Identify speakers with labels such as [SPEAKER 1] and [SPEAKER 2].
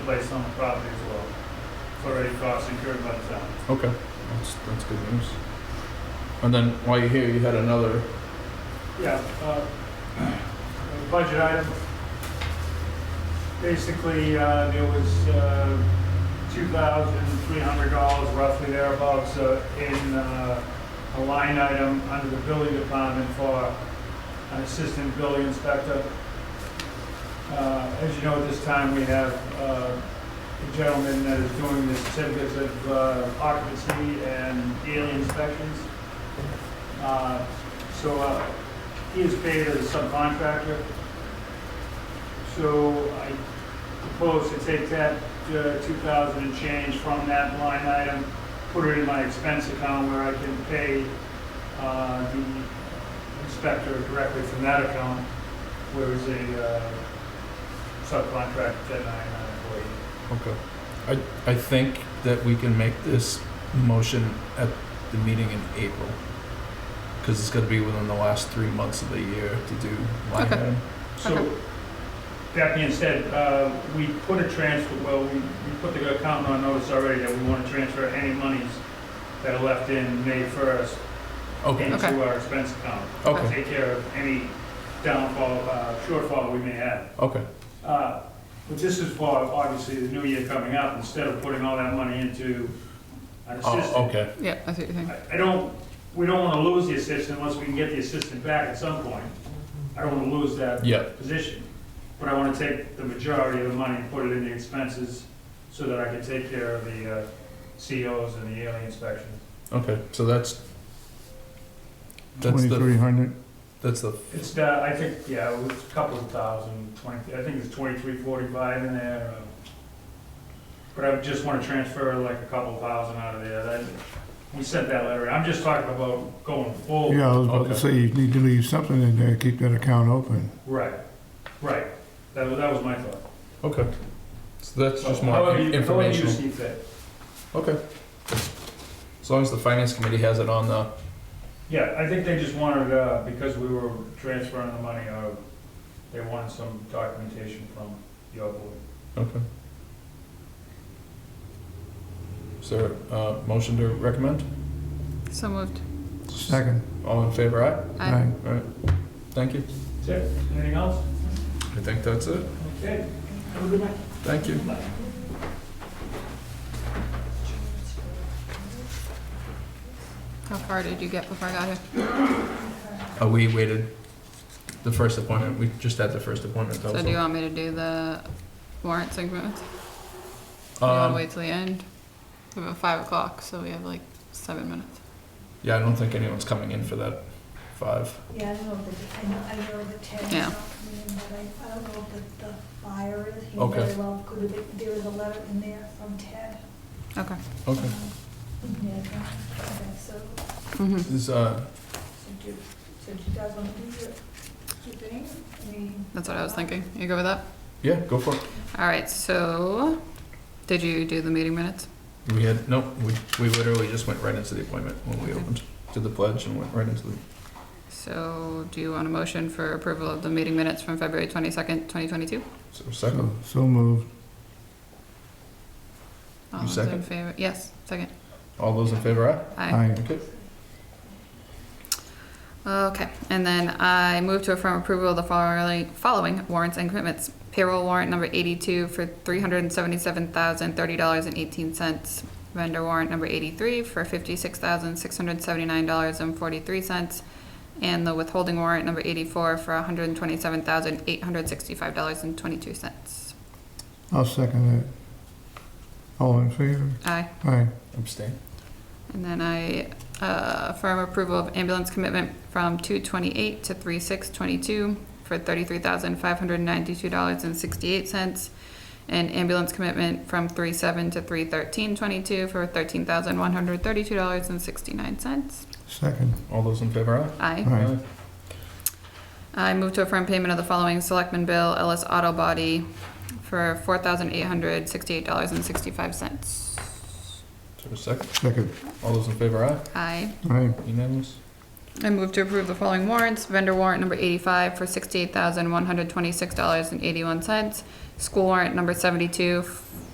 [SPEAKER 1] based on the property as well. It's already cost incurred by the town.
[SPEAKER 2] Okay, that's, that's good news. And then while you're here, you had another,
[SPEAKER 1] Yeah, uh, a budget item. Basically, uh, there was uh, $2,300 roughly thereabouts uh, in uh, a line item under the building department for an assistant building inspector. Uh, As you know, at this time, we have uh, a gentleman that is doing the certificates of uh, occupancy and daily inspections. Uh, So uh, he is paid as a subcontractor. So I propose to take that uh, 2,000 and change from that line item, put it in my expense account where I can pay uh, the inspector directly from that account, where is a uh, subcontract that I am an employee.
[SPEAKER 2] okay. I, I think that we can make this motion at the meeting in April. Cause it's gonna be within the last three months of the year to do line
[SPEAKER 3] Okay.
[SPEAKER 2] item.
[SPEAKER 3] Okay.
[SPEAKER 1] So, that being said, uh, we put a transfer, well, we we put the accountant on notice already that we want to transfer any monies that are left in May 1st
[SPEAKER 2] Okay,
[SPEAKER 3] Okay.
[SPEAKER 1] into our expense account.
[SPEAKER 2] Okay.
[SPEAKER 1] Take care of any downfall, uh, shortfall we may have.
[SPEAKER 2] okay,
[SPEAKER 1] Uh, But this is for, obviously, the new year coming up, instead of putting all that money into an
[SPEAKER 2] oh,
[SPEAKER 1] assistant.
[SPEAKER 2] okay,
[SPEAKER 3] Yeah, I see what you're saying.
[SPEAKER 1] I I don't, we don't want to lose the assistant unless we can get the assistant back at some point. I don't want to lose that
[SPEAKER 2] yeah,
[SPEAKER 1] position, but I want to take the majority of the money and put it in the expenses so that I can take care of the uh, COs and the yearly inspections.
[SPEAKER 2] okay, so that's. That's
[SPEAKER 4] Twenty-three
[SPEAKER 2] the,
[SPEAKER 4] hundred,
[SPEAKER 2] that's the,
[SPEAKER 1] It's, uh, I think, yeah, it was a couple of thousand, twenty, I think it's twenty-three forty-five in there. uh, But I just want to transfer like a couple thousand out of there. That- We sent that letter. I'm just talking about going forward.
[SPEAKER 4] yeah, I was about
[SPEAKER 2] Oh, Okay.
[SPEAKER 4] to say, you need to leave something in there, keep that account open.
[SPEAKER 1] Right, right. That was, that was my thought.
[SPEAKER 2] okay. So that's just more
[SPEAKER 1] However you- however you
[SPEAKER 2] informational.
[SPEAKER 1] see fit.
[SPEAKER 2] Okay. As long as the finance committee has it on the,
[SPEAKER 1] Yeah, I think they just wanted, uh, because we were transferring the money, uh, they wanted some documentation from your board.
[SPEAKER 2] Okay. Is there a motion to recommend?
[SPEAKER 3] So moved.
[SPEAKER 4] Second,
[SPEAKER 2] All in favor, aye?
[SPEAKER 3] I,
[SPEAKER 4] aye.
[SPEAKER 2] All right, thank you.
[SPEAKER 1] That's it. Anything else?
[SPEAKER 2] I think that's it.
[SPEAKER 1] Okay. Have a good night.
[SPEAKER 2] Thank you.
[SPEAKER 3] how far did you get before I got here?
[SPEAKER 2] Uh, we waited the first appointment, we just had the first appointment. that
[SPEAKER 3] So
[SPEAKER 2] was
[SPEAKER 3] do you
[SPEAKER 2] all.
[SPEAKER 3] want me to do the warrant segment? Do you want to
[SPEAKER 2] Um,
[SPEAKER 3] wait till the end? We're About five o'clock, so we have like seven minutes.
[SPEAKER 2] Yeah, I don't think anyone's coming in for that five.
[SPEAKER 5] Yeah, I don't know, if the- I know, I know the ten is
[SPEAKER 3] Yeah.
[SPEAKER 5] not coming in, but I, I don't know if the, the fire is, he
[SPEAKER 2] Okay.
[SPEAKER 5] very well could have, been- there was a letter in there from Ted. Um,
[SPEAKER 3] Okay.
[SPEAKER 2] Okay.
[SPEAKER 5] Yeah, okay, so,
[SPEAKER 3] Mhm.
[SPEAKER 2] Is, uh,
[SPEAKER 5] so do, so do you guys want to do your, your thing? I mean.
[SPEAKER 3] That's what I was thinking. You go with that?
[SPEAKER 2] yeah, go for it.
[SPEAKER 3] All right, so did you do the meeting minutes?
[SPEAKER 2] We had, no, we, we literally just went right into the appointment when we opened, did the pledge and went right into the,
[SPEAKER 3] So do you want a motion for approval of the meeting minutes from February twenty-second, twenty twenty-two?
[SPEAKER 2] so
[SPEAKER 4] So,
[SPEAKER 2] second.
[SPEAKER 4] so moved,
[SPEAKER 3] All those in
[SPEAKER 2] second?
[SPEAKER 3] favor? Yes, second.
[SPEAKER 2] All those in favor, aye?
[SPEAKER 3] Aye.
[SPEAKER 4] aye.
[SPEAKER 2] Okay.
[SPEAKER 3] Okay, and then I move to affirm approval of the following, following warrants and commitments. Payroll warrant number eighty-two for three hundred and seventy-seven thousand, thirty dollars and eighteen cents. Vendor warrant number eighty-three for fifty-six thousand, six hundred and seventy-nine dollars and forty-three cents. And the withholding warrant number eighty-four for hundred and twenty-seven thousand, eight hundred and sixty-five dollars and twenty-two cents.
[SPEAKER 4] I'll second that. All in favor?
[SPEAKER 3] Aye.
[SPEAKER 4] Aye.
[SPEAKER 2] Abstain.
[SPEAKER 3] And then I uh, affirm approval of ambulance commitment from two twenty-eight to three six twenty-two for thirty-three thousand five hundred ninety-two dollars and sixty-eight cents. And ambulance commitment from three seven to three thirteen twenty-two for thirteen thousand one hundred thirty-two dollars and sixty-nine cents.
[SPEAKER 4] Second,
[SPEAKER 2] All those in favor, aye?
[SPEAKER 3] Aye.
[SPEAKER 4] aye.
[SPEAKER 3] I move to affirm payment of the following selectmen bill, Ellis Auto Body, for four thousand eight hundred sixty-eight dollars and sixty-five cents.
[SPEAKER 2] Is there a second?
[SPEAKER 4] Second,
[SPEAKER 2] All those in favor, aye?
[SPEAKER 3] Aye.
[SPEAKER 4] aye.
[SPEAKER 2] Unanimous?
[SPEAKER 3] I move to approve the following warrants. Vendor warrant number eighty-five for sixty-eight thousand, one hundred twenty-six dollars and eighty-one cents. School warrant number seventy-two f-